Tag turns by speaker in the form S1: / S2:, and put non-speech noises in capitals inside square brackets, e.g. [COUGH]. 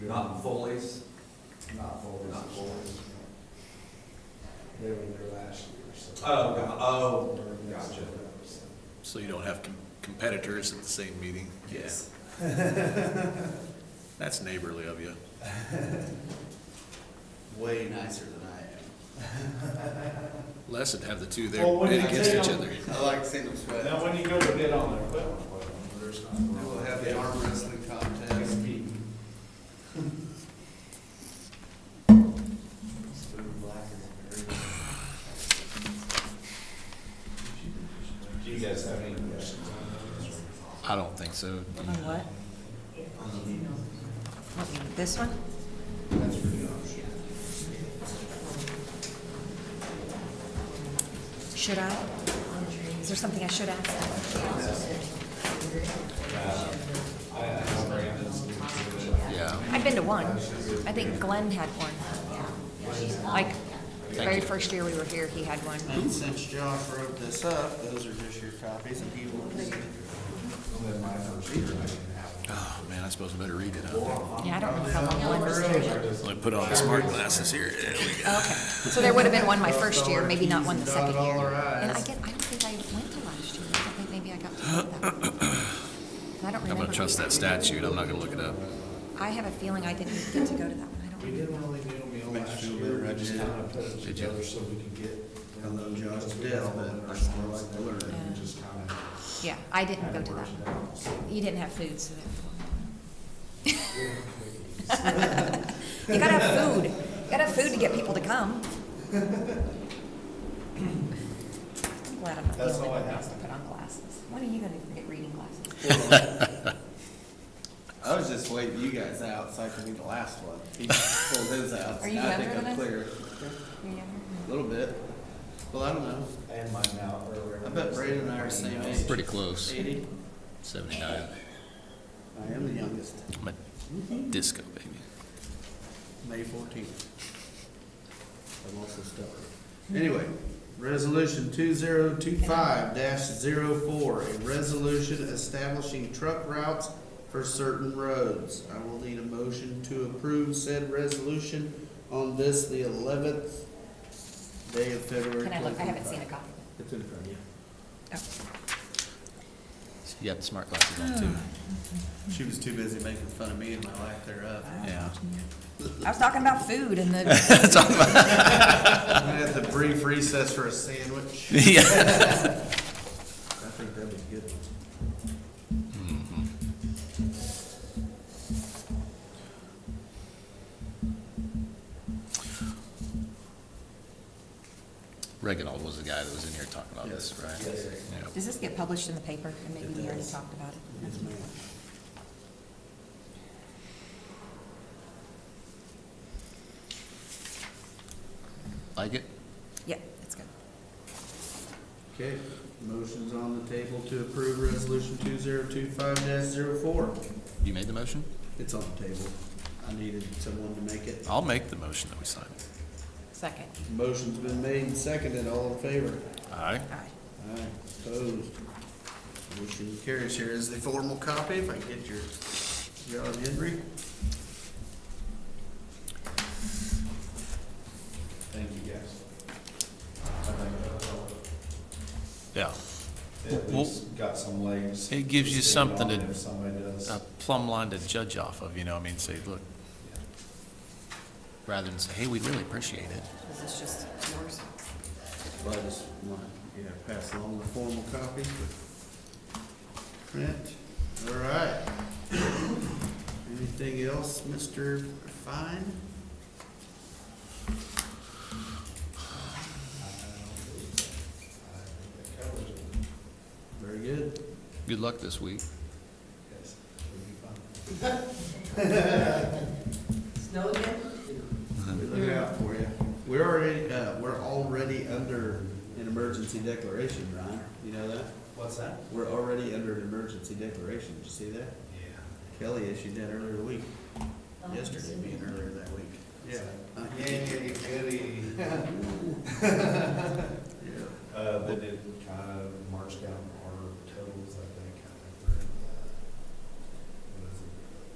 S1: Not Foley's,
S2: Not Foley's.
S1: Not Foley's.
S2: They were there last year, so.
S1: Oh, go- oh,
S2: Or next
S1: gotcha.
S2: year, so.
S3: So you don't have com- competitors at the same meeting? Yeah.
S1: yes.
S3: That's neighborly of you.
S4: way nicer than I
S3: Les would have the two there
S5: Well, when
S3: bid
S5: you
S3: against
S5: take
S3: each
S5: them-
S3: other.
S4: am. I like seeing them sweat.
S5: Now, when you go to bid on their equipment, well, there's not.
S4: We will have the arm wrestling contest.
S5: Do you guys have any questions?
S3: I don't think so.
S6: On what? What, This one? Should I? Is there something I should ask?
S3: Yeah.
S6: I've been to one. I think Glenn had one. Like, the very first year we were here, he had one.
S4: And since Josh wrote this up, those are just your copies and he will.
S2: Only my first year, I didn't have one.
S3: Oh, man, I suppose I better read it out.
S6: Yeah, I don't know how long Glenn was there.
S3: I put on the smart glasses here. There we go.
S6: Okay, so there would have been one my first year, maybe not one the second
S4: Dotted all
S6: year.
S4: our
S6: And I
S4: i's.
S6: get, I don't think I went to last year. I think maybe I got to go to that. one. And I don't
S3: I'm
S6: remember.
S3: gonna trust that statute. I'm not gonna look it up.
S6: I have a feeling I didn't get to go to that one. I don't
S2: We
S6: remember.
S2: didn't really do them all
S4: Makes
S2: last
S4: you feel
S2: year,
S4: better,
S2: we
S4: I
S2: just
S4: did.
S2: kind of put it
S3: Did you?
S2: together so we could get.
S4: I love John's
S2: We
S4: death,
S2: all
S4: but
S2: went
S4: I
S2: or
S4: still
S2: something
S4: like
S2: like
S4: the
S2: that,
S4: word.
S2: and
S6: Yeah.
S2: Just kind of.
S6: Yeah, I didn't go to that.
S2: worked it out, so.
S6: You didn't have food, so [LAUGHS] therefore. You gotta
S5: [LAUGHS]
S6: have food. You gotta have food to get people to come. I'm Glad I'm not the
S5: That's
S6: only
S5: all I
S6: one that
S5: have.
S6: has to put on glasses. When are you gonna get reading glasses?
S4: I was just waiting you guys out so I could be the last one. He pulled his out.
S6: Are you
S4: I think
S6: younger
S4: I'm
S6: than us?
S4: clear.
S6: You never
S4: A little bit. Well, I don't know.
S2: And mine now earlier.
S4: I bet Braden and I are same age.
S3: Pretty close.
S4: Eighty.
S3: Seventy-nine.
S4: I am the youngest.
S3: I'm a disco baby.
S4: May fourteenth. I'm also stubborn. Anyway, resolution two zero two five 4 a resolution establishing truck routes for certain roads. I will need a motion to approve said resolution on this, the eleventh day of February.
S6: mind? Can I look? I haven't seen a copy.
S4: It's in front of you.
S3: You have the smart glasses on [SIGHS] too.
S4: She was too busy making fun of me and my lack thereof.
S3: Yeah.
S6: I was talking about food and the,
S4: I'm gonna have to brief recess for a [LAUGHS] sandwich.
S3: Yeah.
S4: I think that was good.
S3: Reginald was the guy that was in here talking about this, right?
S4: Yes.
S3: Yeah.
S6: does this get published in the paper? And maybe we already talked about it.
S4: Yes, ma'am.
S3: Like it?
S6: Yeah, it's good.
S4: Okay, motion's on the table to approve resolution two zero two five 4
S3: You made the motion?
S4: It's on the table. I needed someone to make it.
S3: I'll make the motion that we signed.
S6: Second.
S4: Motion's been made and seconded, all in favor?
S3: Aye.
S6: All right.
S4: Aye, opposed. Motion carries. Here is the formal copy, if I can get your, John Henry.
S2: Thank you, guys. I think that helped.
S3: Yeah.
S2: At
S3: Well-
S2: least got some legs.
S3: It gives you
S2: to stand
S3: something
S2: on
S3: to-
S2: If somebody does.
S3: a plumb line to judge off of, you know, I mean, say, look, rather than say, hey, we really appreciate it.
S6: Is this just yours?
S4: Well, I just want, yeah, pass along the formal copy with print. All right. Anything else, Mr. Fine? Very good.
S3: Good luck this week.
S7: Snow again?
S4: We look out for you. We're already, uh, we're already under an emergency declaration, Ryan. You know that?
S2: What's that?
S4: We're already under an emergency declaration. Did you see that?
S2: Yeah.
S4: Kelly issued that earlier the week, yesterday, being earlier that week. Uh,
S2: Yay, goody.
S4: Yeah.
S2: Uh, but it kind of marched down. uh,